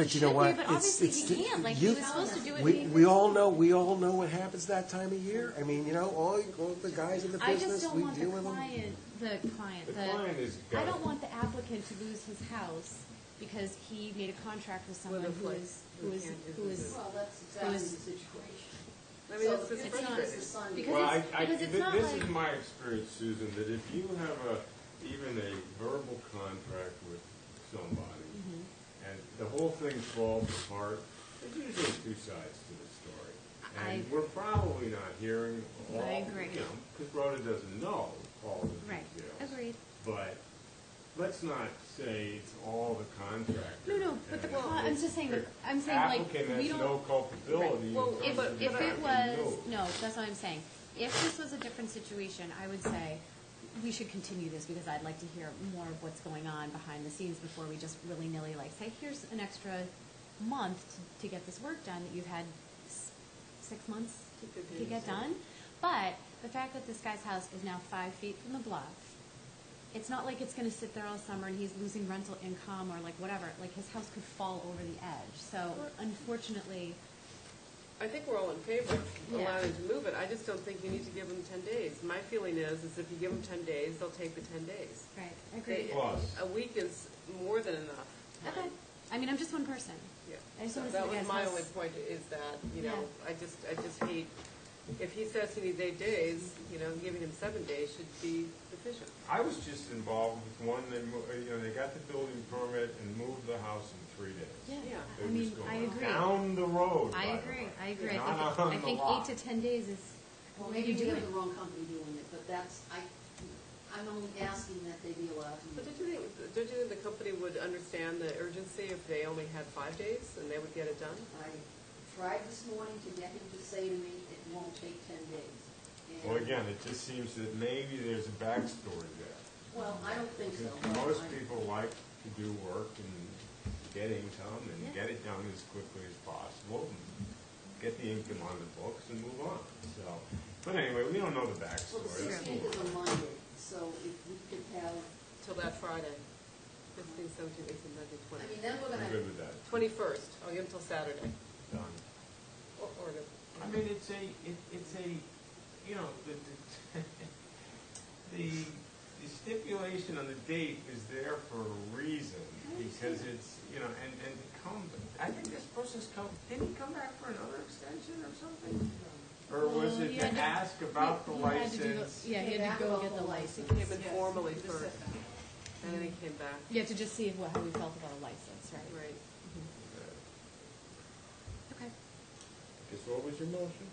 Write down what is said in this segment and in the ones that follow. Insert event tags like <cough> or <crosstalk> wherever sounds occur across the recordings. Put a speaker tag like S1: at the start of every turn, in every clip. S1: But you know
S2: should
S1: what?
S2: be, but
S1: It's-
S2: obviously
S1: it's
S2: he
S1: ju-
S2: can't. Like, he
S1: you-
S2: was supposed to do it
S1: We,
S2: in-
S1: we all know, we all know what happens that time of year. I mean, you know, all, all the guys in the
S2: I just
S1: business,
S2: don't
S1: we
S2: want the
S1: deal with them.
S2: client, the client,
S3: The
S2: the.
S3: client is
S2: I
S3: got-
S2: don't want the applicant to lose his house because he made a contract with someone who is, who is, who is.
S4: Well, that's
S2: It
S4: exactly the
S2: was-
S4: situation.
S5: I mean,
S4: So
S5: that's the
S4: if
S2: It's
S4: he
S2: not-
S4: was the son,
S2: because
S3: Well, I,
S2: it's-
S3: I,
S2: because it's
S3: thi-
S2: not
S3: this is
S2: like-
S3: my experience, Susan, that if you have a, even a verbal contract with somebody,
S2: Mm-hmm.
S3: and the whole thing falls apart, there's usually two sides to the story. And
S2: I-
S3: we're probably not hearing all,
S2: I
S3: you know,
S2: agree.
S3: because Rhoda doesn't know all the
S2: Right,
S3: details.
S2: agreed.
S3: But let's not say it's all the contractor.
S2: No, no, but the
S3: and
S2: cli- I'm just saying the- I'm saying, like, we
S3: Applicant has
S2: don't-
S3: no culpability. in
S5: Well,
S3: terms
S2: If,
S3: of the
S2: if it
S3: fact
S2: was,
S3: that he knows.
S2: no, that's what I'm saying. If this was a different situation, I would say we should continue this because I'd like to hear more of what's going on behind the scenes before we just willy-nilly like say, here's an extra month to, to get this work done that you've had s- six months to, to get done. But the fact that this guy's house is now five feet from the bluff, it's not like it's going to sit there all summer and he's losing rental income or like whatever. Like his house could fall over the edge. So unfortunately,
S5: I think we're all in favor of
S2: Yeah.
S5: allowing to move it, I just don't think you need to give them ten days. My feeling is, is if you give them ten days, they'll take the ten days.
S2: right,
S5: They-
S2: agreed.
S3: Plus.
S5: A week is more than enough.
S2: Okay. I mean, I'm just one person.
S5: Yeah.
S2: I just
S5: So
S2: wanna see
S5: That
S2: the
S5: was
S2: guy's
S5: my
S2: house.
S5: only point, is that, you know,
S2: Yeah.
S5: I just, I just hate, if he says he needs eight days, you know, giving him seven days should be sufficient.
S3: I was just involved with one that, mo- uh, you know, they got the building permit and moved the house in three days.
S5: Yeah.
S2: I
S3: They
S2: mean,
S3: just go
S2: I agree.
S3: Down the road,
S2: I
S3: by the
S2: agree.
S3: way.
S2: I agree. I
S3: Not
S2: think,
S3: on
S2: I
S3: the
S2: think
S3: lot.
S2: eight to ten days is
S4: well,
S2: what
S4: maybe
S2: you
S4: we have
S2: doing.
S4: the wrong company doing it, but that's, I, I'm only asking that they be allowed to
S5: But
S4: move.
S5: don't you think, don't you think the company would understand the urgency if they only had five days and they would get it done?
S4: I tried this morning to get him to say to me, it won't take ten days.
S3: Well,
S4: And-
S3: again, it just seems that maybe there's a backstory there.
S4: Well, I don't think so.
S3: Because
S4: but
S3: most
S4: I-
S3: people like to do work and get income and get it done as quickly as possible, and get the income on the books and move on, so. But anyway, we don't know the
S4: Well, the
S3: backstory. Let's move
S4: sixteenth is
S3: on.
S4: a Monday, so if we could have,
S5: Till that Friday, fifteen, seventeen, eighteen, nineteen,
S4: I mean,
S5: twenty.
S4: then we're
S3: I'm
S4: gonna,
S3: good with that,
S5: Twenty-first, Oh, I'll give them till Saturday,
S3: done.
S5: or, or to
S3: I mean, it's a, it, it's a, you know, the, the, <laughs> the stipulation on the date is there for a reason, because it's, you know, and, and to come, I think this person's come, didn't he come back for another extension or something? Or was
S2: Well,
S3: it
S2: he
S3: to
S2: had to-
S3: ask about the
S2: He had to do the-
S3: license?
S2: Yeah, he had to go get the license.
S5: He came in formally
S4: Yes.
S5: first, and then he came back,
S2: You have to just see if what, how we felt about a license, right?
S5: right?
S2: Okay.
S3: Guess what was your motion?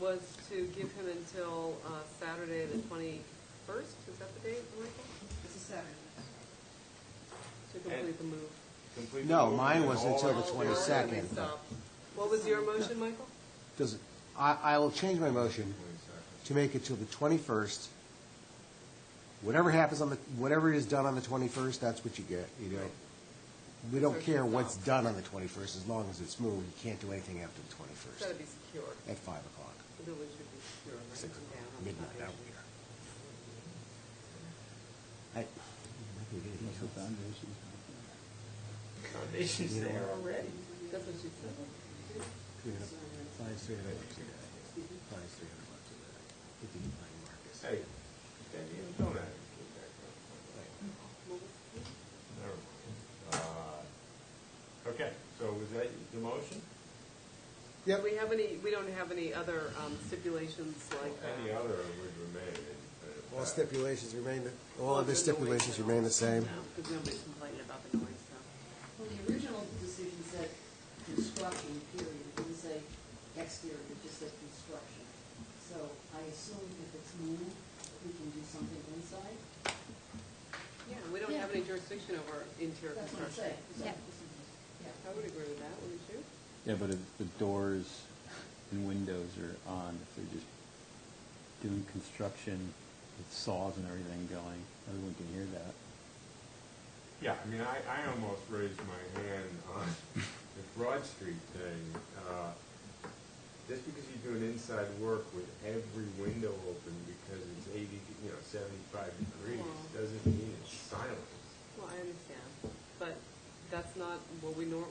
S5: Was to give him until uh, Saturday, the twenty-first, is that the date, Michael?
S4: it's a Saturday.
S5: To complete the move.
S3: Complete the
S6: No,
S3: motion
S6: mine
S3: and
S6: was
S3: all
S6: until
S3: that-
S6: the
S5: Oh,
S6: 22nd.
S5: they stopped. What was your motion, Michael?
S6: Does, it- I, I will change my motion
S3: 22nd.
S6: to make it till the 21st. Whatever happens on the, whatever is done on the 21st, that's what you get, you know? We don't care what's done on the 21st, as long as it's moved, you can't do anything after
S5: It's
S6: the
S5: gotta
S6: 21st,
S5: be secure,
S6: at 5 o'clock,
S5: the village should be secure, right?
S6: 6 o'clock,
S5: Yeah, I'm
S6: midnight
S5: not-
S6: out here. I, maybe we didn't do it.
S3: Foundation's there already.
S5: That's what she said.
S6: You know, five, three hundred bucks a day. Five, three hundred bucks a day. If you can find Marcus.
S3: Hey, Danny, you don't have to keep that going.
S5: What was-
S3: Never mind. Uh, Okay, so was that the motion?
S5: Do we have any, we don't have any other um, stipulations like that?
S3: Any other would remain. in effect.
S6: All stipulations remain, the- all other stipulations remain the same.
S5: Because nobody's complaining about the noise, so.
S4: Well, the original decision said construction, period, it didn't say exterior, it just said construction. So I assume if it's moved, we can do something inside,
S5: Yeah, we don't
S2: Yeah.
S5: have any jurisdiction over interior
S4: that's what I'm
S5: construction.
S4: saying. So-
S2: Yeah.
S4: Yeah.
S5: I would agree with that, wouldn't you?
S7: Yeah, but if the doors and windows are on, if they're just doing construction with saws and everything going, everyone can hear that.
S3: Yeah, I mean, I, I almost raised my hand on the Broad Street thing. Uh, Just because you do an inside work with every window open because it's eighty, you know, seventy-five degrees,
S5: Well.
S3: doesn't mean it's silent.
S5: Well, I understand, but that's not what we nor,